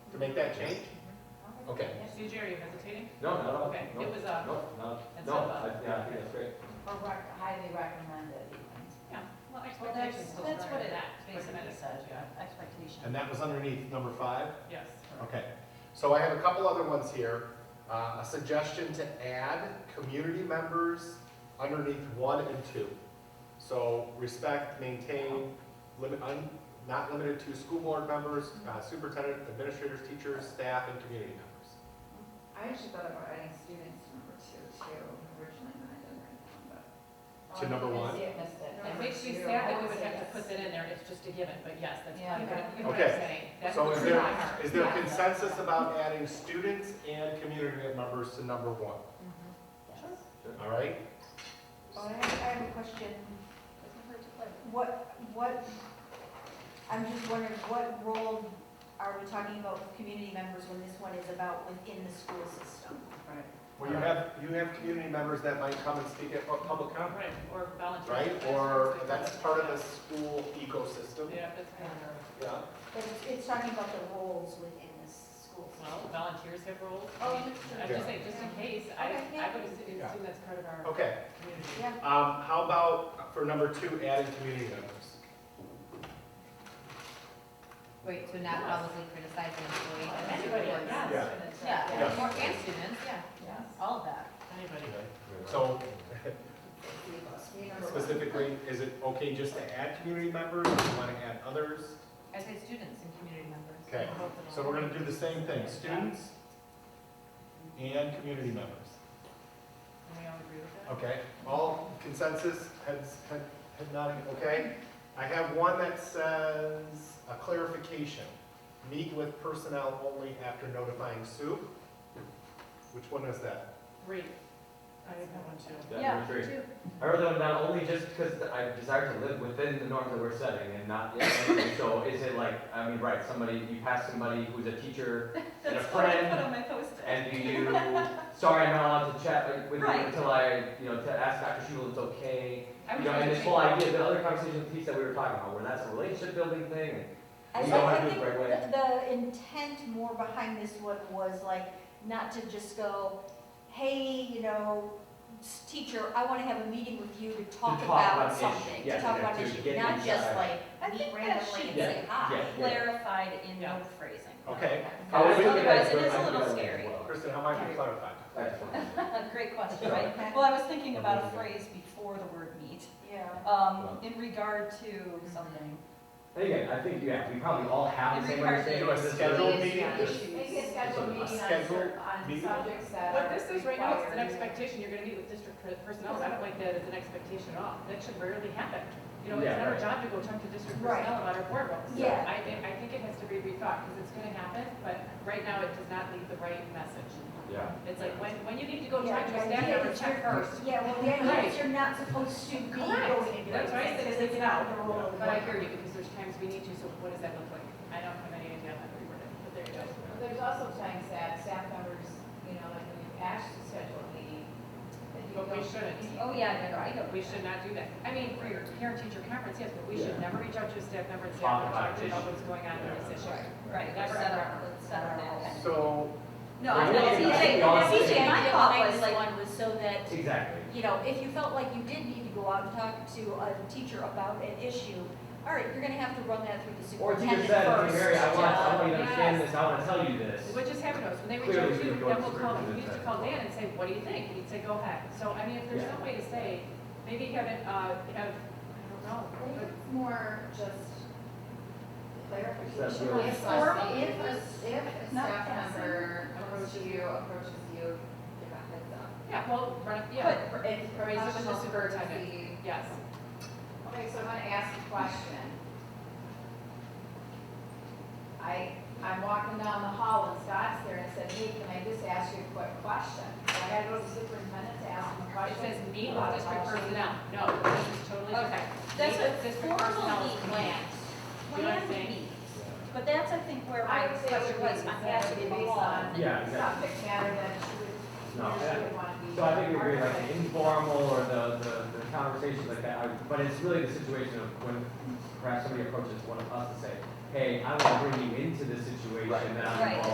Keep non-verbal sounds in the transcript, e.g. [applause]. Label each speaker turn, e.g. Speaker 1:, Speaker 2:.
Speaker 1: to make that change? Okay.
Speaker 2: See, Jerry, you hesitating?
Speaker 1: No, no, no.
Speaker 2: Okay,
Speaker 1: no,
Speaker 2: it was, uh,
Speaker 1: No, no,
Speaker 2: it's
Speaker 1: no,
Speaker 2: not
Speaker 1: I- yeah, I think that's great.
Speaker 3: Or rec- highly recommended even.
Speaker 2: yeah, well,
Speaker 3: Well, that's,
Speaker 2: expectations still.
Speaker 3: that's
Speaker 2: start
Speaker 3: what it
Speaker 2: at that,
Speaker 3: basically
Speaker 2: recommended,
Speaker 3: says,
Speaker 2: yeah.
Speaker 3: yeah, expectation.
Speaker 1: And that was underneath number five?
Speaker 2: Yes.
Speaker 1: Okay. So I have a couple other ones here. Uh, A suggestion to add community members underneath one and two. So respect, maintain, limit, un- not limited to school board members, uh, superintendent, administrators, teachers, staff, and community members.
Speaker 4: I actually thought about adding students to number two too, originally, and I didn't write that, but.
Speaker 1: To number one?
Speaker 3: I missed it.
Speaker 2: It makes me
Speaker 4: Number two,
Speaker 2: sad that
Speaker 4: I
Speaker 2: we
Speaker 4: would
Speaker 2: would
Speaker 4: say
Speaker 2: have to
Speaker 4: yes.
Speaker 2: put that in there, it's just a given, but yes, that's, you
Speaker 3: Yeah.
Speaker 2: know what- you know what I'm
Speaker 1: Okay.
Speaker 2: saying? That's
Speaker 1: So is
Speaker 2: what's in my
Speaker 1: there,
Speaker 2: heart.
Speaker 1: is there
Speaker 2: Yeah.
Speaker 1: consensus about adding students and community members to number one?
Speaker 3: Sure.
Speaker 1: All right?
Speaker 4: Well, I have, I have a question. What, what, I'm just wondering, what role are we talking about with community members when this one is about within the school system?
Speaker 2: Right,
Speaker 1: Well, you have, you have community members that might come and speak at pu- public comment.
Speaker 2: Right, or volunteer.
Speaker 1: right? Or that's part of the school ecosystem.
Speaker 2: Yeah, that's kind of,
Speaker 1: Yeah.
Speaker 4: But it's, it's talking about the roles within the school
Speaker 2: well,
Speaker 4: system.
Speaker 2: volunteers have roles.
Speaker 4: Oh,
Speaker 2: I mean,
Speaker 4: that's
Speaker 2: I'm
Speaker 1: true.
Speaker 2: just saying, just in case, I,
Speaker 4: Okay,
Speaker 2: I
Speaker 4: yeah.
Speaker 2: would assume
Speaker 1: Yeah. Oh.
Speaker 2: assume that's part of our
Speaker 1: Okay,
Speaker 2: community.
Speaker 4: Yeah,
Speaker 1: um, how about for number two, adding community members?
Speaker 5: Wait, so not publicly criticize an employee? that's
Speaker 2: Anybody,
Speaker 5: what it is.
Speaker 2: yeah.
Speaker 1: Yeah.
Speaker 5: Yeah,
Speaker 1: Yeah.
Speaker 5: more and students, yeah,
Speaker 3: Yes.
Speaker 5: all of that.
Speaker 2: Anybody.
Speaker 1: So
Speaker 4: Community members, community members.
Speaker 1: specifically, is it okay just to add community members, or you wanna add others?
Speaker 5: I say students and community members.
Speaker 1: Okay,
Speaker 5: both of
Speaker 1: So
Speaker 5: them.
Speaker 1: we're gonna do the same thing, students and community members.
Speaker 2: And we all agree with that?
Speaker 1: Okay, all consensus, heads, head head nodding, okay? I have one that says, a clarification, meet with personnel only after notifying Sue. Which one is that?
Speaker 2: Great. I have one too.
Speaker 6: Yeah, number three.
Speaker 2: [laughs]
Speaker 6: I wrote them down only just because I desire to live within the norms that we're setting and not, so is it like, I mean, right, somebody, you pass somebody who's a teacher and a friend,
Speaker 2: on my post-it.
Speaker 6: and do you, sorry, I'm not allowed to chat with you
Speaker 2: Right.
Speaker 6: until I, you know, to ask Dr. Shul it's okay.
Speaker 2: I
Speaker 6: You
Speaker 2: was
Speaker 6: know, and
Speaker 2: gonna
Speaker 6: this
Speaker 2: say-
Speaker 6: whole idea, the other conversation piece that we were talking about, where that's a relationship building thing,
Speaker 4: I
Speaker 6: We
Speaker 4: think,
Speaker 6: don't
Speaker 4: I
Speaker 6: have it
Speaker 4: think
Speaker 6: right away.
Speaker 4: the the intent more behind this one was like, not to just go, hey, you know, s- teacher, I want to have a meeting with you to talk
Speaker 6: talk about
Speaker 4: about
Speaker 6: an
Speaker 4: something,
Speaker 6: issue,
Speaker 4: to
Speaker 6: yeah,
Speaker 4: talk
Speaker 6: yeah,
Speaker 4: about
Speaker 6: to
Speaker 4: an issue,
Speaker 6: get
Speaker 4: not just
Speaker 6: inside.
Speaker 4: like,
Speaker 3: I
Speaker 4: meet
Speaker 3: think that
Speaker 4: randomly
Speaker 3: should
Speaker 4: and
Speaker 3: be
Speaker 4: say hi.
Speaker 6: Yeah.
Speaker 3: clarified in
Speaker 2: Yeah.
Speaker 3: the phrasing.
Speaker 1: Okay.
Speaker 6: Oh,
Speaker 1: How would we-
Speaker 3: Otherwise, it is a little scary.
Speaker 1: Kristen, how might we clarify?
Speaker 3: [laughs] Great question,
Speaker 6: Sure.
Speaker 3: right?
Speaker 4: Okay.
Speaker 3: Well, I was thinking about a phrase before the word meet,
Speaker 4: Yeah.
Speaker 3: um, in regard to something.
Speaker 6: And again, I think, yeah, we probably all have the same
Speaker 3: Every
Speaker 6: understanding.
Speaker 1: person-
Speaker 6: of this.
Speaker 1: Schedule
Speaker 6: It is,
Speaker 1: meeting.
Speaker 6: yeah.
Speaker 7: Maybe a scheduled meeting on
Speaker 1: Scheduled
Speaker 7: cer- on
Speaker 1: meeting?
Speaker 7: subjects that
Speaker 2: What
Speaker 7: are
Speaker 2: this is right now is an
Speaker 7: required.
Speaker 2: expectation, you're gonna meet with district per- personnel, I don't like that as an expectation at all, that should rarely happen. You know, it's
Speaker 6: Yeah,
Speaker 2: not our
Speaker 6: right.
Speaker 2: job to go talk to district
Speaker 4: Right.
Speaker 2: personnel about our board roles.
Speaker 4: Yeah.
Speaker 2: I think, I think it has to be rethought, because it's gonna happen, but right now it does not leave the right message.
Speaker 6: Yeah.
Speaker 2: It's like, when, when you need to go
Speaker 4: Yeah,
Speaker 2: talk to
Speaker 4: the
Speaker 2: a staff
Speaker 4: idea
Speaker 2: member,
Speaker 4: is
Speaker 2: check
Speaker 4: you're-
Speaker 2: first.
Speaker 4: Yeah, well, the idea
Speaker 2: Right.
Speaker 4: is you're not supposed to be going
Speaker 2: Correct.
Speaker 4: and doing
Speaker 2: That's right, it's-
Speaker 4: things, 'cause it's not the role of the
Speaker 2: But I
Speaker 4: board.
Speaker 2: hear you, because there's times we need to, so what does that look like? I don't have any idea how to reword it, but there you go.
Speaker 7: There's also times that staff members, you know, like when you ask to schedule a meeting, that you
Speaker 2: But we
Speaker 7: don't.
Speaker 2: shouldn't.
Speaker 5: Oh, yeah, no, no, I know.
Speaker 2: We should not do that. I mean, for your parent-teacher conference, yes, but we should
Speaker 6: Yeah.
Speaker 2: never reach out to a staff member and say, I'm
Speaker 6: Talk about
Speaker 2: talking to you about
Speaker 6: this.
Speaker 2: what's going on in this issue.
Speaker 5: Right,
Speaker 2: Never,
Speaker 5: that's set
Speaker 2: ever,
Speaker 5: our, let's set our
Speaker 3: Never.
Speaker 5: kind of-
Speaker 1: So,
Speaker 3: No,
Speaker 6: Yeah,
Speaker 3: I know,
Speaker 6: yeah,
Speaker 3: CJ,
Speaker 6: yeah.
Speaker 3: CJ, my thought was like,
Speaker 4: one was so that
Speaker 6: Exactly.
Speaker 4: you know, if you felt like you did need to go out and talk to a teacher about an issue, all right, you're gonna have to run that through the
Speaker 6: Or if you
Speaker 4: superintendent
Speaker 6: just said, hey,
Speaker 4: first.
Speaker 6: Mary, I want, I want you to
Speaker 2: Yes.
Speaker 6: understand this, I want to tell you this.
Speaker 2: What just happened was, when they reach
Speaker 6: Clearly,
Speaker 2: out to you,
Speaker 6: we don't
Speaker 2: then we'll call,
Speaker 6: superintendent
Speaker 2: we used to
Speaker 6: said.
Speaker 2: call Dan and say, what do you think? And he'd say, go ahead. So, I mean, if there's
Speaker 6: Yeah.
Speaker 2: some way to say, maybe have it, uh, have, I don't know,
Speaker 7: I think
Speaker 2: but
Speaker 7: it's more just
Speaker 6: That's
Speaker 7: clarification.
Speaker 6: really-
Speaker 7: If a- If a, if a
Speaker 3: Not
Speaker 7: staff
Speaker 3: passing.
Speaker 7: member approaches you, approaches you, give a heads up.
Speaker 2: yeah, well, run, yeah,
Speaker 7: But It's
Speaker 2: raise it with the
Speaker 7: professional
Speaker 2: superintendent.
Speaker 7: courtesy.
Speaker 2: yes.
Speaker 7: Okay, so I'm gonna ask a question. I, I'm walking down the hall and Scott's there and I said, hey, can I just ask you a quick question? Do I gotta go to the superintendent to ask him a
Speaker 2: It
Speaker 7: question?
Speaker 2: says meet with
Speaker 7: About
Speaker 2: district
Speaker 7: policy?
Speaker 2: personnel. No, this is totally different.
Speaker 3: okay, that's
Speaker 2: Meet
Speaker 3: a
Speaker 2: with district personnel is
Speaker 3: formal meet,
Speaker 2: meet.
Speaker 3: planned,
Speaker 2: You know what I'm
Speaker 3: planned
Speaker 2: saying?
Speaker 3: meet. But that's, I think, where my
Speaker 7: I would say it
Speaker 3: question
Speaker 7: would
Speaker 3: was,
Speaker 7: be,
Speaker 3: I had
Speaker 7: that
Speaker 3: to
Speaker 7: would
Speaker 3: be
Speaker 7: be
Speaker 3: the
Speaker 7: based
Speaker 3: law.
Speaker 7: on
Speaker 6: Yeah, exactly.
Speaker 7: subject matter that she would,
Speaker 6: No,
Speaker 7: she would wanna be.
Speaker 6: So I think we agree, like
Speaker 7: part of.
Speaker 6: informal or the, the, the conversations like that, I- but it's really the situation of when perhaps somebody approaches one of us to say, hey, I want to bring you into this situation
Speaker 1: Right.
Speaker 6: that I'm
Speaker 3: Right.
Speaker 6: involved